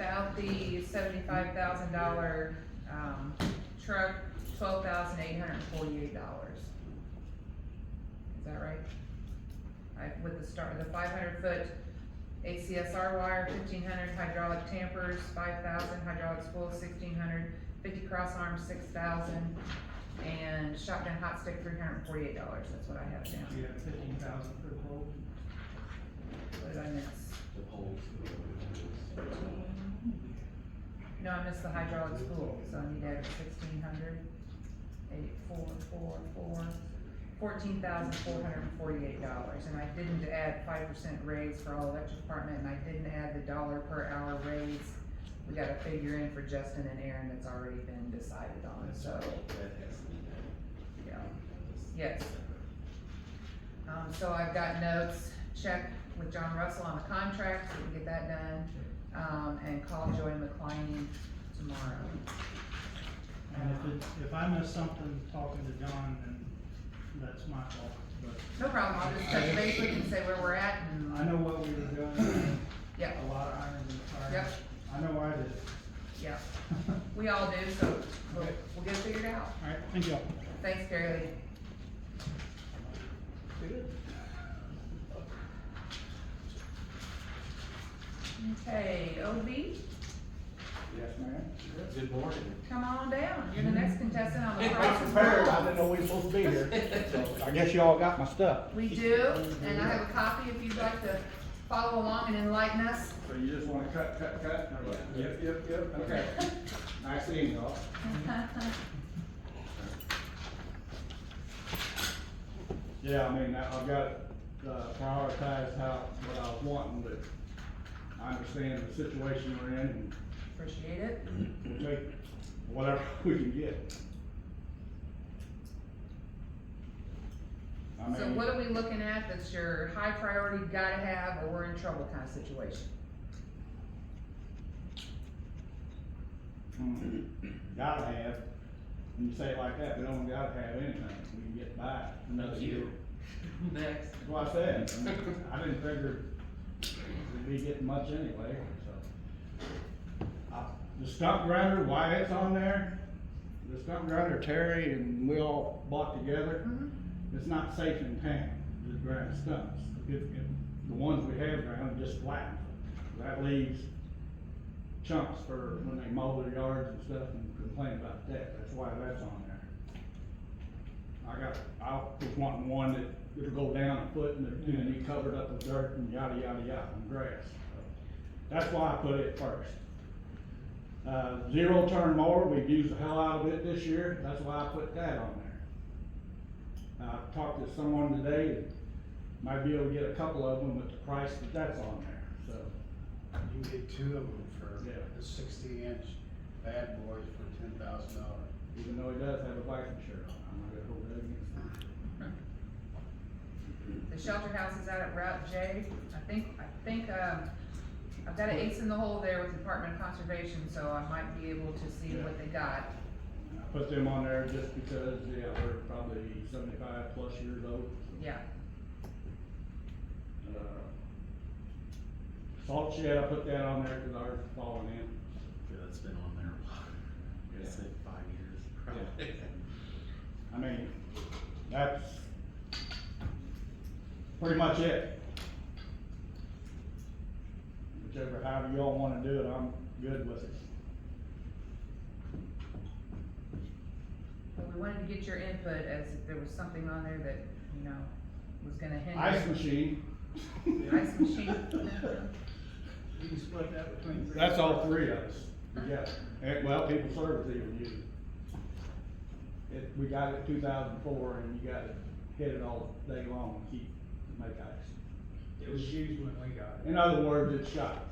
out the seventy-five thousand dollar, um, truck, twelve thousand eight hundred and forty-eight dollars. Is that right? I, with the start, the five hundred foot ACSR wire, fifteen hundred hydraulic tampers, five thousand hydraulic spools, sixteen hundred, fifty cross arms, six thousand, and shotgun hot stick, three hundred and forty-eight dollars, that's what I have down. You have fifteen thousand for the pole. What did I miss? the poles. No, I missed the hydraulic spool, so I need to add sixteen hundred, eight, four, four, four, fourteen thousand four hundred and forty-eight dollars, and I didn't add five percent raise for all electric department, and I didn't add the dollar per hour raise. We got a figure in for Justin and Aaron that's already been decided on, so, That has to be done. yeah, yes. Um, so I've got notes, check with John Russell on the contract, so we can get that done, um, and call Joy McLean tomorrow. And if it, if I miss something talking to John, then that's my fault, but No problem, I'll just touch base with you and say where we're at I and, uh, know what we were doing. Yeah. A lot of irons in the fire. Yep. I know I did. yeah, we all do, so we'll, Okay. we'll get it figured out. Alright, thank y'all. Thanks, Gary Lee. Okay, OB, Yes, ma'am. Good morning. come on down, you're the next contestant on the Price I'm is prepared, I didn't Wrong. know we were supposed to be here, so I guess y'all got my stuff. We do, and I have a copy if you'd like to follow along and enlighten us. So you just wanna cut, cut, cut? and I'm like, Yep, yep, yep, okay. Nice seeing y'all. Yeah, I mean, I- I've got, uh, prioritized how, what I was wanting, but I understand the situation we're in and Appreciate it. we'll take whatever we can get. I So mean, what are we looking at that's your high priority, gotta have, or we're in trouble kind of situation? mm, gotta have, when you say it like that, we don't gotta have anything, we can get by another year. Next. That's what I said, I mean, I didn't figure we'd be getting much anyway, so. I- The stump grinder, why it's on there, the stump grinder, Terry and we all bought together, it's not safe in town, to grind stumps. If, if the ones we have ground just flatten, that leaves chunks for when they mow their yards and stuff and complain about that, that's why that's on there. I got, I was wanting one that it'll go down a foot and then, and then you cover it up with dirt and yada, yada, yada, and grass. That's why I put it first. Uh, zero turn mower, we've used the hell out of it this year, that's why I put that on there. Uh, I talked to someone today, that might be able to get a couple of them at the price that that's on there, so. You can get two of them for Yeah. the sixty inch bad boys for ten thousand dollars. Even though he does have a biking shirt on, I'm not gonna hold that against him. The shelter house is out at Route J. I think, I think, um, I've got an ace in the hole there with Department of Conservation, so I might be able to see what they got. I put them on there just because, yeah, they're probably seventy-five plus years old. Yeah, Uh, Salt shed, I put that on there because ours is falling in. Yeah, that's been on there a while. It's been five years. probably. I mean, that's pretty much it. Whichever, however y'all wanna do it, I'm good with it. but we wanted to get your input as if there was something on there that, you know, was gonna Ice hinder. machine. Ice machine. You can split that between three. That's all three of us, yeah, and, well, people service even use it. It, we got it two thousand four, and you gotta hit it all day long, to keep, to make ice. It was used when we got In other words, it's shot,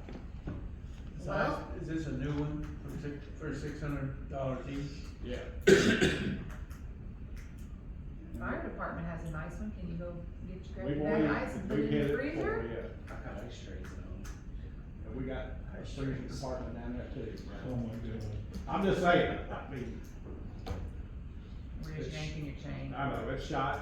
Well- Is this a new one for six, for six hundred dollars each? yeah. Fire department has a nice one. Can you go get your, We've grab already- that ice and put we've it in hit the it before, freezer? Yeah, I got ice trays though. And we got a freezing department down there too. Oh my goodness. I'm just saying, I mean, We're just yanking your chain. I know, it's shot,